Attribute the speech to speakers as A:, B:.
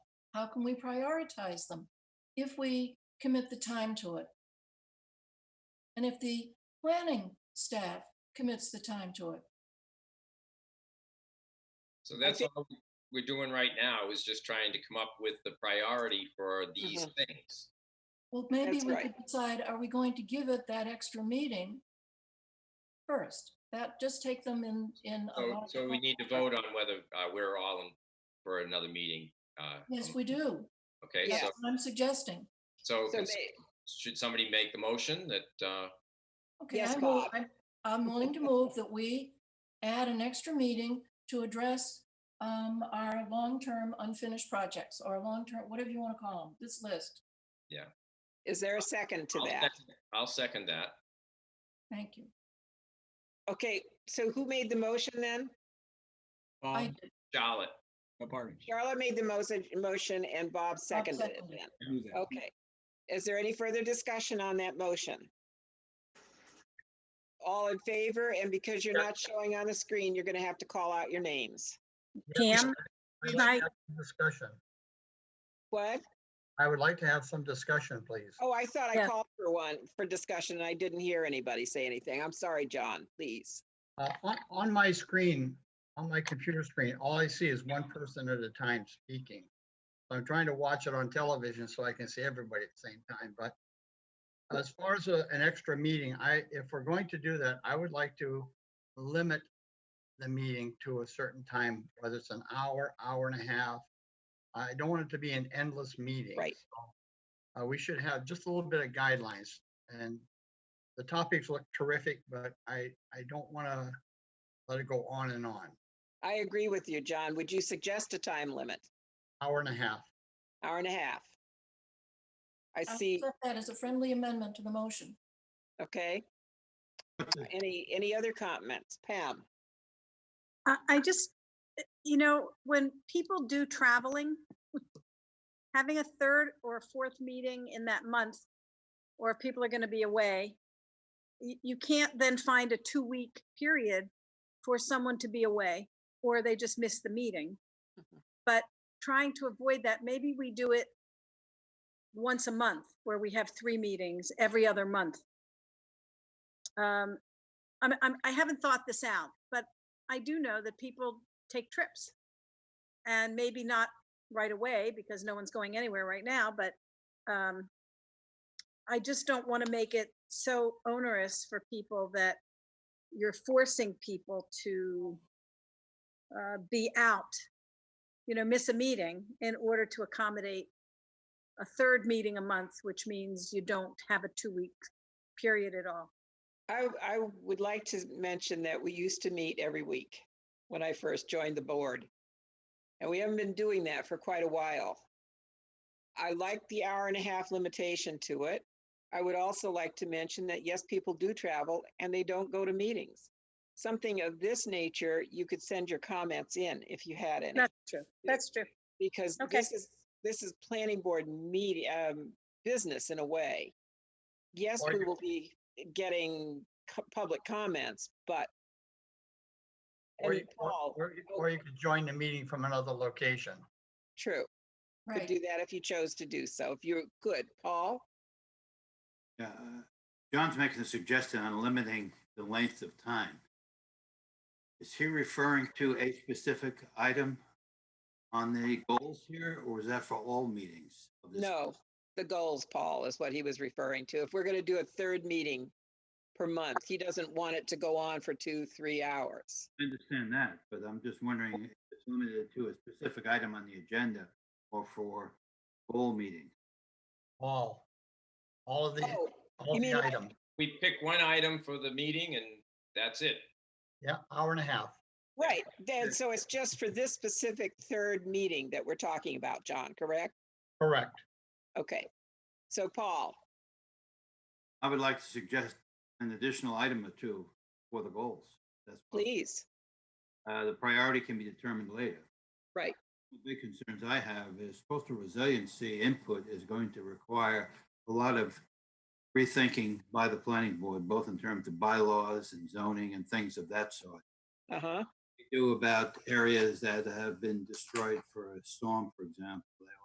A: How can we prioritize them if we commit the time to it? And if the planning staff commits the time to it?
B: So that's
C: think-
B: all we're doing right now is just trying to come up with the priority for these
C: Mm-hmm.
B: things.
A: Well, maybe
C: That's
A: we
C: right.
A: could decide, are we going to give it that extra meeting first? That, just take them in, in. a
B: So,
A: logical-
B: so we need to vote on whether uh, we're all in for another meeting. uh,
A: Yes, we do.
B: Okay,
C: Yeah.
A: That's
B: so,
A: what I'm suggesting.
B: so
C: So
B: cons-
C: may-
B: should somebody make the motion that, uh,
A: Okay,
C: Yes,
A: I move-
C: Bob.
A: I'm, I'm willing to move that we add an extra meeting to address um, our long-term unfinished projects or long-term, whatever you want to call them, this list.
C: is there a second to
B: I'll
C: that?
B: second- I'll second that.
A: Thank you.
C: Okay, so who made the motion then?
A: I
C: Um,
D: Bob,
A: did.
B: Charlotte,
D: Bobarge,
C: Charlotte made the motion, motion and Bob seconded it
A: seconded it.
C: then.
D: do that.
C: Okay. Is there any further discussion on that motion? All in favor, and because you're
B: Sure.
C: not showing on the screen, you're gonna have to call out your names.
E: Pam,
F: I'd
E: we
F: like
E: might-
F: to have some Discussion.
C: What?
F: I would like to have some discussion, please.
C: Oh, I thought I
E: Yeah.
C: called for one for discussion and I didn't hear anybody say anything. I'm sorry, John, please.
F: Uh, on, on my screen, on my computer screen, all I see is one person at a time speaking. I'm trying to watch it on television so I can see everybody at the same time, but as far as a- an extra meeting, I, if we're going to do that, I would like to limit the meeting to a certain time, whether it's an hour, hour and a half. I don't want it to be an endless meeting.
C: Right.
F: so, Uh, we should have just a little bit of guidelines and the topics look terrific, but I, I don't want to let it go on and on.
C: I agree with you, John. Would you suggest a time limit?
F: Hour and a half.
C: Hour and a half? I
A: I'll
C: see,
A: accept That is a friendly amendment to the motion.
C: okay. Uh, Any, any other comments? Pam?
E: I, I just, eh, you know, when people do traveling, having a third or a fourth meeting in that month, or if people are going to be away, you, you can't then find a two-week period for someone to be away, or they just miss the meeting.
C: Mhm.
E: But trying to avoid that, maybe we do it once a month, where we have three meetings every other month. Um, I'm, I'm, I haven't thought this out, but I do know that people take trips. And maybe not right away because no one's going anywhere right now, but um, I just don't want to make it so onerous for people that you're forcing people to uh, be out, you know, miss a meeting in order to accommodate a third meeting a month, which means you don't have a two-week period at all.
C: I, I would like to mention that we used to meet every week when I first joined the board. And we haven't been doing that for quite a while. I like the hour and a half limitation to it. I would also like to mention that yes, people do travel and they don't go to meetings. Something of this nature, you could send your comments in if you had any,
E: That's true. That's true.
C: because
E: okay.
C: this is, this is planning board meeting, um, business in a way. Yes,
F: Or
C: we
F: you-
C: will be getting co- public comments, but
F: Or
C: and
F: you, or-
C: Paul, oh.
F: or you- or you could join the meeting from another location.
C: true, could
A: Right.
C: do that if you chose to do so. If you're good, Paul?
G: Yeah, uh, John's making a suggestion on limiting the length of time. Is he referring to a specific item on the goals here, or is that for all meetings? of this-
C: No, the goals, Paul, is what he was referring to. If we're going to do a third meeting per month, he doesn't want it to go on for two, three hours.
G: I understand that, but I'm just wondering, if it's limited to a specific item on the agenda or for goal meeting?
F: All, all of the,
C: Oh,
F: all
C: you
F: the
C: mean like-
F: item.
B: we pick one item for the meeting and that's it.
F: Yeah, hour and a half.
C: right. Then, so it's just for this specific third meeting that we're talking about, John, correct?
F: Correct.
C: Okay. So Paul,
G: I would like to suggest an additional item or two for the goals. That's possible.
C: please.
G: Uh, the priority can be determined later.
C: Right.
G: The big concerns I have is coastal resiliency input is going to require a lot of rethinking by the planning board, both in terms of bylaws and zoning and things of that sort.
C: Uh-huh.
G: We do about areas that have been destroyed for a storm, for example,